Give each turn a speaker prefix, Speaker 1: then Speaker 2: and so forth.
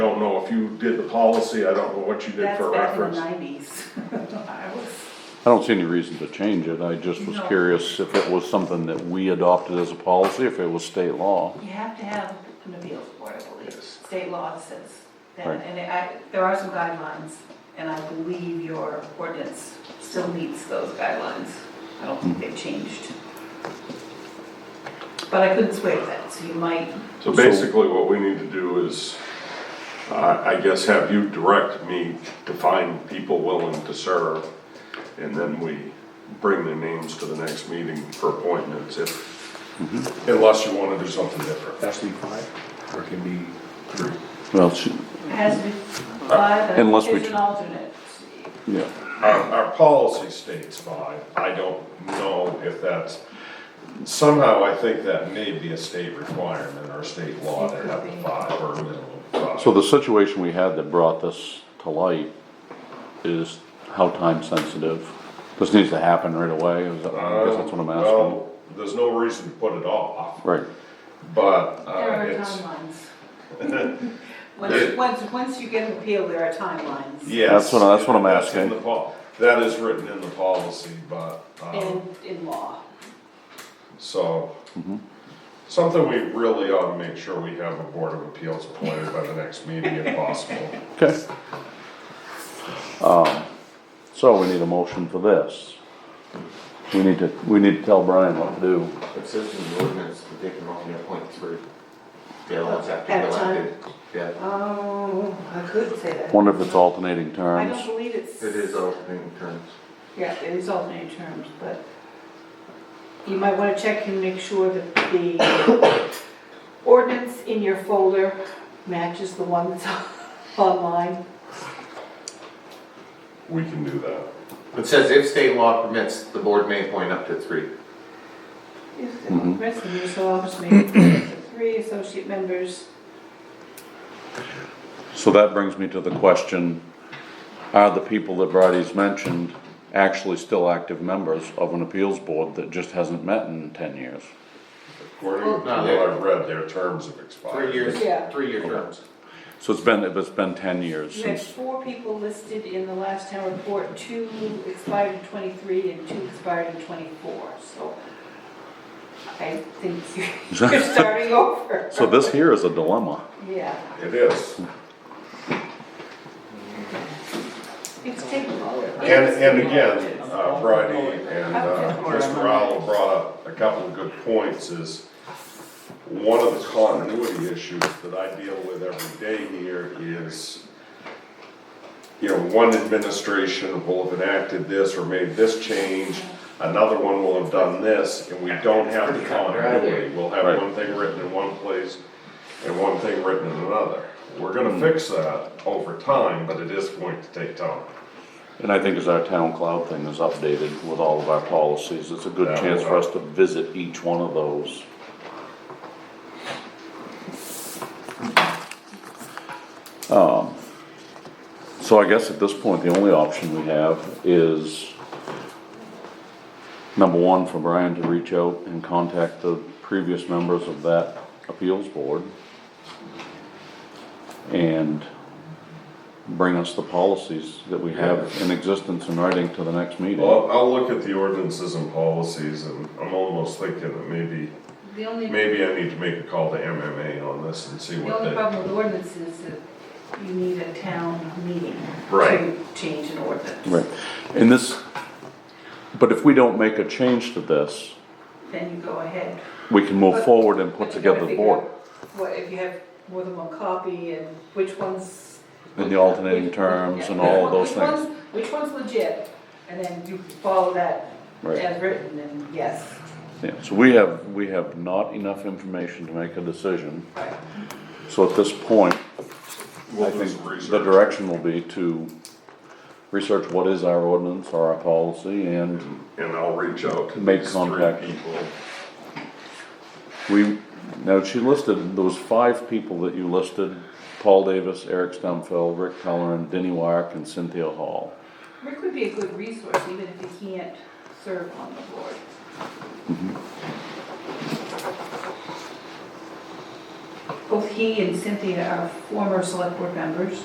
Speaker 1: I don't know if you did the policy, I don't know what you did
Speaker 2: That's
Speaker 1: for
Speaker 2: back in the
Speaker 1: reference.
Speaker 2: nineties. I was,
Speaker 3: I don't see any reason to change it, I just was
Speaker 2: No.
Speaker 3: curious if it was something that we adopted as a policy, if it was state law.
Speaker 2: you have to have an appeals board, I believe.
Speaker 1: Yes.
Speaker 2: State law says that,
Speaker 3: Right.
Speaker 2: and I, there are some guidelines, and I believe your ordinance still meets those guidelines. I don't think they've changed. But I couldn't swear to that, so you might,
Speaker 1: So basically, what we need to do is, I, I guess, have you direct me to find people willing to serve, and then we bring their names to the next meeting for appointments, if,
Speaker 4: Mm-hmm.
Speaker 1: unless you wanna do something different.
Speaker 4: Has to be five, or it can be three.
Speaker 3: Well, she-
Speaker 2: it has to be five, and
Speaker 3: Unless we
Speaker 2: there's
Speaker 3: ch-
Speaker 2: an alternate.
Speaker 3: yeah,
Speaker 1: Our, our policy states five, I don't know if that's, somehow I think that may be a state requirement or state law to have the five or a minimum of
Speaker 3: so
Speaker 1: five.
Speaker 3: the situation we had that brought this to light is how time sensitive? This needs to happen right away, is that, I guess that's what I'm
Speaker 1: Um,
Speaker 3: asking.
Speaker 1: Well, there's no reason to put it off.
Speaker 3: Right,
Speaker 1: But uh,
Speaker 2: There are
Speaker 1: it's,
Speaker 2: timelines. Once, once, once you get an appeal, there are timelines.
Speaker 1: yes.
Speaker 3: That's what I- that's what I'm
Speaker 1: that's in
Speaker 3: asking.
Speaker 1: the pol- That is written in the policy, but, um,
Speaker 2: In, in law.
Speaker 1: so,
Speaker 3: Mm-hmm.
Speaker 1: something we really ought to make sure we have a Board of Appeals appointed by the next meeting if possible.
Speaker 3: okay. Um, so we need a motion for this. We need to, we need to tell Brian what to do.
Speaker 5: It says in the ordinance that they can only appoint three. They're allowed after
Speaker 2: At a time?
Speaker 5: elected. Yeah,
Speaker 2: Oh, I could say that.
Speaker 3: Wonder if it's alternating
Speaker 2: I
Speaker 3: terms?
Speaker 2: don't believe it's.
Speaker 5: it is opening terms.
Speaker 2: Yeah, it is alternate terms, but you might wanna check and make sure that the ordinance in your folder matches the one that's online.
Speaker 1: We can do that.
Speaker 5: It says if state law permits, the board may appoint up to three.
Speaker 2: If the rest of you, so I'll just make it three associate members.
Speaker 3: So that brings me to the question, are the people that Bridie's mentioned actually still active members of an appeals board that just hasn't met in ten years?
Speaker 1: According to what
Speaker 5: Not yet.
Speaker 1: I've read, their terms have expired.
Speaker 5: Three years,
Speaker 2: Yeah.
Speaker 5: three-year terms.
Speaker 3: So it's been, it's been ten years
Speaker 2: You had
Speaker 3: since,
Speaker 2: four people listed in the last town report, two expired in twenty-three and two expired in twenty-four, so I think you're you're starting over.
Speaker 3: so this here is a dilemma.
Speaker 2: Yeah.
Speaker 1: It is.
Speaker 2: It's taken
Speaker 1: And, and again, uh, Bridie and uh, Mr. Rowell brought up a couple of good points is one of the continuity issues that I deal with every day here is, you know, one administration will have enacted this or made this change, another one will have done this, and we don't have the continuity. We'll have
Speaker 3: Right.
Speaker 1: one thing written in one place and one thing written in another. We're gonna fix that over time, but it is going to take time.
Speaker 3: And I think as our town cloud thing is updated with all of our policies, it's a good
Speaker 1: Yeah.
Speaker 3: chance for us to visit each one of those. Um, So I guess at this point, the only option we have is, number one, for Brian to reach out and contact the previous members of that appeals board and bring us the policies that we have in existence in writing to the next meeting.
Speaker 1: Well, I'll look at the ordinances and policies, and I'm almost thinking that maybe,
Speaker 2: The only, the
Speaker 1: maybe I need to make a call to MMA on this and see what
Speaker 2: only
Speaker 1: they.
Speaker 2: problem with ordinance is that you need a town meeting to
Speaker 1: Right.
Speaker 2: change an ordinance.
Speaker 3: Right, and this, but if we don't make a change to this,
Speaker 2: Then you go ahead.
Speaker 3: we can move forward and put
Speaker 2: But you gotta
Speaker 3: together the
Speaker 2: figure
Speaker 3: board
Speaker 2: out What, if you have more than one copy and which ones.
Speaker 3: and the alternating terms and all of those
Speaker 2: Which
Speaker 3: things.
Speaker 2: one's- Which one's legit, and then you follow that
Speaker 3: Right.
Speaker 2: as written, and yes.
Speaker 3: Yeah, so we have, we have not enough information to make a decision,
Speaker 2: Right.
Speaker 3: so at this point,
Speaker 1: We'll
Speaker 3: I
Speaker 1: do
Speaker 3: think
Speaker 1: some
Speaker 3: the
Speaker 1: research.
Speaker 3: direction will be to research what is our ordinance or our policy, and
Speaker 1: And I'll reach out to
Speaker 3: Make
Speaker 1: these
Speaker 3: contact.
Speaker 1: three people.
Speaker 3: we, now, she listed, those five people that you listed, Paul Davis, Eric Stumfeld, Rick Pellerin, Denny Wark, and Cynthia Hall.
Speaker 2: Rick would be a good resource, even if he can't serve on the board. Both he he and Cynthia are former select board members.